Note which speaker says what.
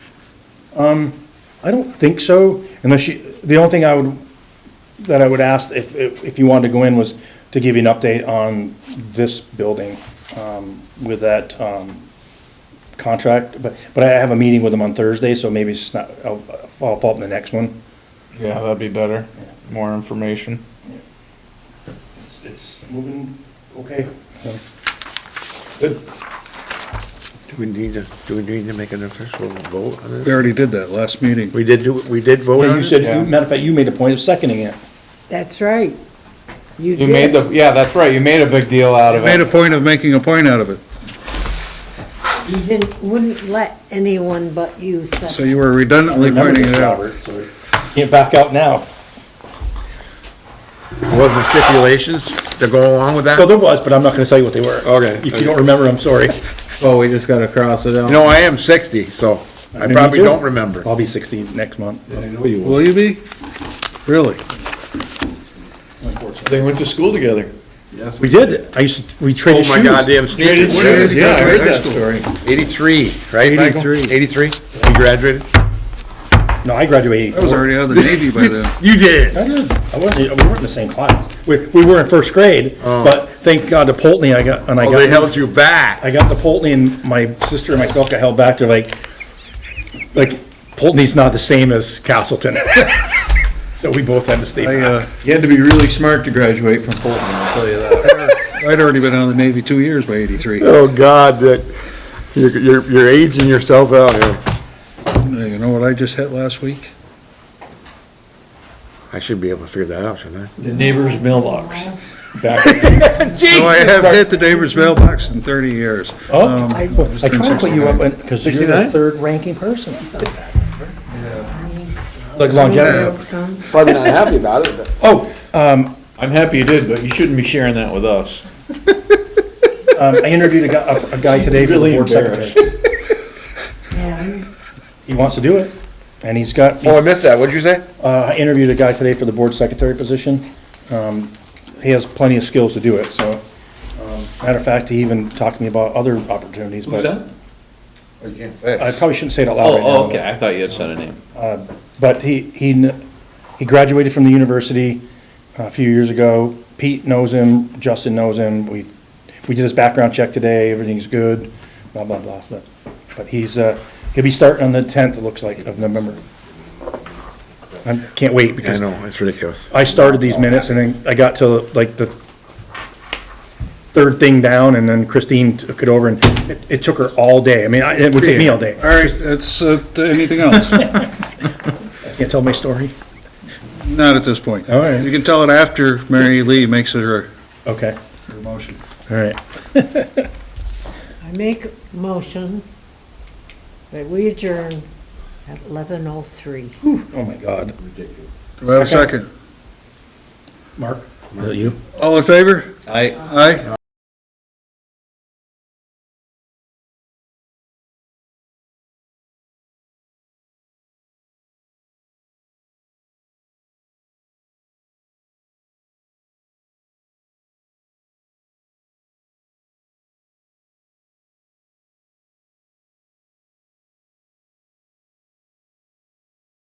Speaker 1: I don't think so, unless you, the only thing I would, that I would ask if, if if you wanted to go in was to give you an update on this building um, with that um, contract, but, but I have a meeting with them on Thursday, so maybe it's not, I'll, I'll follow up in the next one.
Speaker 2: Yeah, that'd be better. More information.
Speaker 1: It's- It's moving, okay.
Speaker 3: Do we need to, do we need to make an official vote on
Speaker 4: We
Speaker 3: this?
Speaker 4: already did that last meeting.
Speaker 3: We did do, we did vote
Speaker 1: Well,
Speaker 3: on
Speaker 1: you
Speaker 3: it?
Speaker 2: Yeah.
Speaker 1: said, matter of fact, you made a point of seconding it.
Speaker 5: That's right. You
Speaker 2: You made
Speaker 5: did.
Speaker 2: the, yeah, that's right, you made a big deal out of
Speaker 4: Made a
Speaker 2: it.
Speaker 4: point of making a point out of it,
Speaker 5: You didn't, wouldn't let anyone but you
Speaker 4: so
Speaker 5: say.
Speaker 4: you were redundantly pointing it out.
Speaker 1: Robert, so Can't back out now.
Speaker 3: Was the stipulations to go along with
Speaker 1: Well,
Speaker 3: that?
Speaker 1: there was, but I'm not gonna tell you what they were.
Speaker 3: Okay.
Speaker 1: If you don't remember, I'm sorry.
Speaker 6: Oh, we just gotta cross it out.
Speaker 3: No, I am sixty, so I
Speaker 1: Me
Speaker 3: probably
Speaker 1: too.
Speaker 3: don't remember.
Speaker 1: I'll be sixty next month,
Speaker 4: Will you be? Really?
Speaker 1: unfortunately.
Speaker 2: They went to school together.
Speaker 1: We did, I used to, we
Speaker 3: Oh
Speaker 1: traded shoes.
Speaker 3: my goddamn sneakers.
Speaker 2: Yeah, I heard
Speaker 4: High
Speaker 2: that
Speaker 4: school.
Speaker 2: story.
Speaker 3: Eighty-three, right, Michael?
Speaker 4: 83.
Speaker 3: Eighty-three? You graduated?
Speaker 1: No, I graduated
Speaker 4: I was
Speaker 1: eighty-four.
Speaker 4: already out of the Navy by then.
Speaker 3: You did.
Speaker 1: I did, I wasn't, we weren't in the same class. We, we were in first grade, but thank God to Polteny, I got, and I
Speaker 3: Well, Oh. they
Speaker 1: got,
Speaker 3: held you back.
Speaker 1: I got the Polteny and my sister and myself got held back to like, like, Poltony's not the same as Castleton. So we both had to stay
Speaker 4: I,
Speaker 1: back.
Speaker 4: uh,
Speaker 6: You had to be really smart to graduate from Fulton, I'll tell you that.
Speaker 4: I'd already been out of the Navy two years by eighty-three.
Speaker 3: Oh, God, that, you're, you're, you're aging yourself out here.
Speaker 4: You know what I just hit last week?
Speaker 3: I should be able to figure that out, shouldn't I?
Speaker 2: The neighbor's mailbox.
Speaker 4: No, I have hit the neighbor's mailbox in thirty years.
Speaker 1: Oh,
Speaker 4: Um,
Speaker 1: I
Speaker 4: just
Speaker 1: I
Speaker 4: turned
Speaker 1: try to put you
Speaker 4: 69.
Speaker 1: up, because you're the
Speaker 6: 69?
Speaker 1: third ranking person. Like longevity.
Speaker 3: Probably not happy about it, but.
Speaker 1: Oh,
Speaker 2: I'm happy you did, but you shouldn't be sharing that with us.
Speaker 1: um, I interviewed a guy, a- a guy today for the
Speaker 2: Really
Speaker 1: board secretary. He wants to do it, and he's got,
Speaker 3: Oh, I missed that, what'd you say?
Speaker 1: uh, I interviewed a guy today for the board secretary position. Um, He has plenty of skills to do it, so, um, matter of fact, he even talked to me about other opportunities, but
Speaker 3: Oh, you can't say.
Speaker 1: I probably shouldn't say it out loud right now.
Speaker 2: Oh,
Speaker 1: but-
Speaker 2: okay, I thought you had said a name.
Speaker 1: But he, he, kn- he graduated from the university uh, a few years ago. Pete knows him, Justin knows him. We, we did his background check today, everything's good, blah, blah, blah. But, but he's, uh, he'll be starting on the tenth, it looks like, of November. I can't wait
Speaker 3: I
Speaker 1: because
Speaker 3: know, it's ridiculous.
Speaker 1: I started these minutes and then I got to like the third thing down and then Christine took it over and it, it took her all day. I mean, I- it would take me all day.
Speaker 4: All right, that's, uh, anything else?
Speaker 1: Can't tell my story.
Speaker 4: Not at this point.
Speaker 1: All right.
Speaker 4: You can tell it after Mary Lee makes her,
Speaker 1: Okay,
Speaker 4: her motion.
Speaker 1: all right.
Speaker 5: I make a motion that we adjourn at eleven oh three.
Speaker 1: Oh, my God.
Speaker 4: Do I have a second?
Speaker 1: Mark? Is that you?
Speaker 4: All in favor?
Speaker 6: I,
Speaker 4: Aye?